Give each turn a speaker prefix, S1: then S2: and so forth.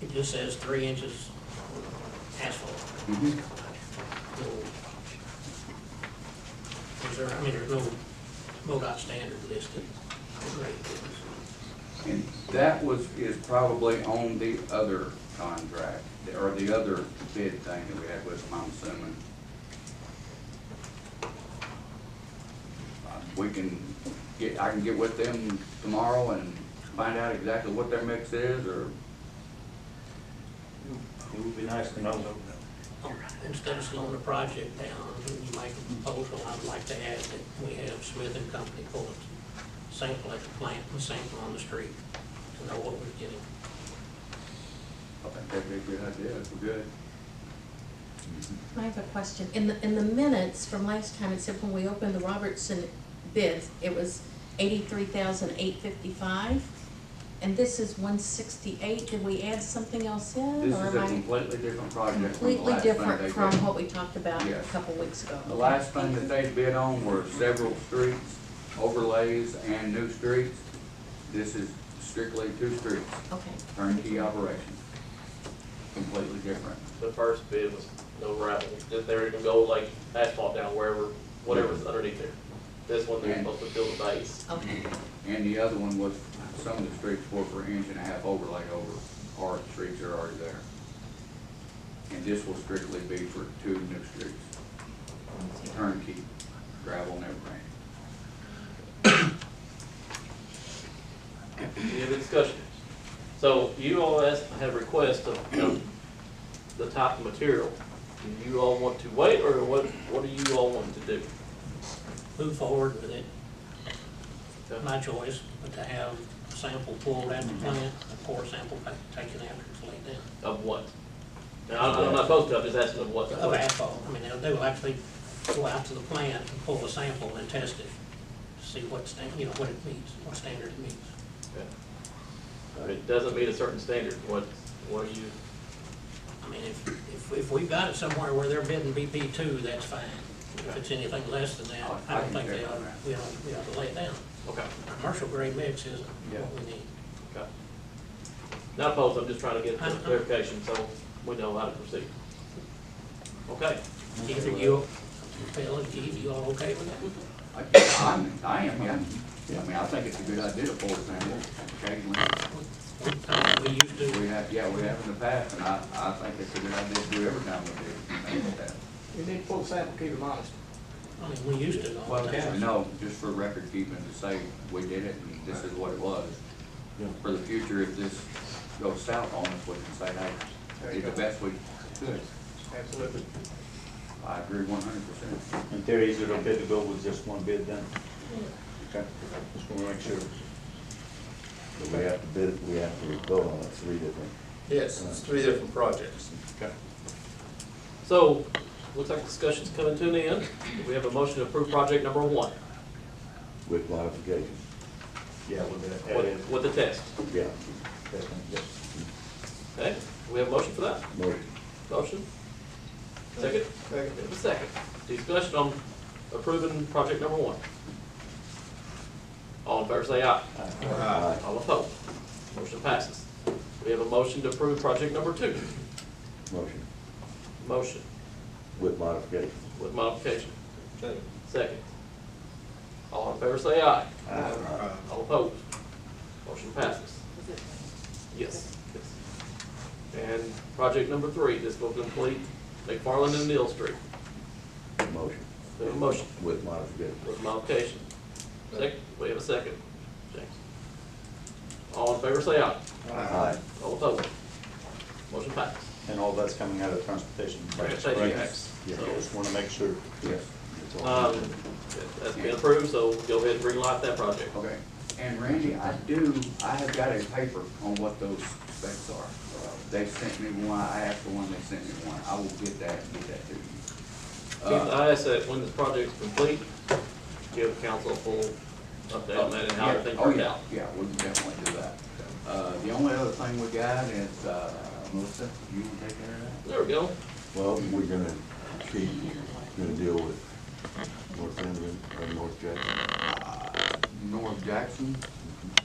S1: it just says three inches asphalt.
S2: Mhm.
S1: No- Is there, I mean, there's no MoDOT standard listed. for grade bins.
S2: And that was, is probably on the other contract, or the other bid thing that we had with them, I'm assuming. Uh, We can get, I can get with them tomorrow and find out exactly what their mix is, or,
S3: It would be nice to know.
S1: Instead of slowing the project down, you make a proposal, I'd like to add that we have Smith and Company pull a sample at the plant, and sample on the street, to know what we're getting.
S2: I think that'd be a good idea, if we're good.
S4: I have a question. In the, in the minutes from last time, it said when we opened the Robertson bids, it was eighty-three thousand eight fifty-five? And this is one sixty-eight, did we add something else in?
S2: This
S4: or
S2: is a
S4: am Oh, I
S2: completely different project from the
S4: Completely
S2: last thing they
S4: different from
S2: did.
S4: what we talked about a
S2: Yes.
S4: couple weeks ago.
S2: The last thing that they bid on were several streets, overlays, and new streets. This is strictly two streets,
S4: Okay,
S2: turnkey operation, completely different.
S5: the first bid was no gravel, just they were gonna go like asphalt down wherever, whatever's underneath there. This one, they're supposed to fill the base.
S4: okay,
S2: And the other one was, some of the streets were for inch and a half overlay over, or the streets are already there. And this will strictly be for two new streets, turnkey, gravel and everything.
S5: Any other discussion? So you all asked, have requests of, you know, the type of material. Do you all want to wait, or what, what do you all want to do?
S1: Move forward with it, my choice, but to have a sample pulled at the plant, a core sample pa- taken after it's laid down.
S5: Of what? Now, I'm I'm not opposed to, I'm just asking of what.
S1: of asphalt. I mean, they'll, they will actually go out to the plant and pull a sample and test it, to see what stan, you know, what it meets, what standard it meets.
S5: If It doesn't meet a certain standard, what, what do you,
S1: I mean, if, if, if we've got it somewhere where they're bidding BP two, that's fine. If it's anything less than that, I don't think they ought, we ought, we ought to lay it down.
S5: okay.
S1: Commercial grade mix isn't what we need.
S5: Okay. Not opposed, I'm just trying to get
S1: Uh-huh.
S5: clarification, so we know how to proceed. Okay,
S1: Keith, are you, Phil and Keith, you all okay with that?
S2: I, I'm- I am, yeah. I mean, I think it's a good idea to pull it down occasionally.
S1: One time we used to,
S2: We have, yeah, we have in the past, and I, I think it's a good idea to do every time we do, you know, that.
S6: You need full sample, keep them honest.
S1: I mean, we used to all the time.
S2: No, just for record keeping, to say we did it, and this is what it was. For the future, if this goes south on us, we can say, hey, it's the best we could.
S6: Absolutely.
S2: I agree one hundred percent.
S3: In theory, is it okay to go with just one bid then? Okay, just wanna make sure.
S7: But we have to bid, we have to go on it three different.
S8: Yes,
S3: uh,
S8: it's three different projects.
S3: Okay.
S5: so, looks like discussion's coming to an end. We have a motion to approve project number one
S7: With modifications,
S3: Yeah, we'll do that. That is-
S5: with, with the test,
S7: yeah,
S3: that's one, yes.
S5: okay? We have a motion for that?
S7: motion.
S5: Motion? Second?
S6: Second.
S5: We have a second. Discussion on approving project number one. All in favor, say aye.
S8: Uh,
S5: All opposed? Motion passes. We have a motion to approve project number two.
S7: Motion,
S5: Motion
S7: with modifications.
S5: with modification.
S8: Second.
S5: Second. All in favor say aye.
S8: uh,
S5: All opposed? Motion passes. Yes, yes. And project number three, this will complete McFarland and Neal Street.
S7: Motion,
S5: We have a motion
S7: with modifications.
S5: with modification. Second, we have a second. James. All in favor say aye.
S7: Aye.
S5: All opposed? Motion passes.
S3: And all that's coming out of transportation.
S5: Transportation tax.
S3: Yeah, just wanna make sure.
S2: Yes.
S3: That's all.
S5: Um, that's been approved, so go ahead and bring light that project.
S2: Okay, and Randy, I do, I have got a paper on what those specs are. They sent me one, I asked for one, they sent me one, I will get that, and get that to you.
S5: Keith,
S2: Uh,
S5: I ask that when this project's complete, give council a full update on that and how everything
S2: Oh,
S5: worked
S2: yeah.
S5: out.
S2: Yeah, we can definitely do that. Uh, the only other thing we got is, uh, Melissa, you wanna take care of that?
S5: There we go.
S7: Well, we're gonna keep, gonna deal with uh, North Denver or North Jackson.
S2: North Jackson,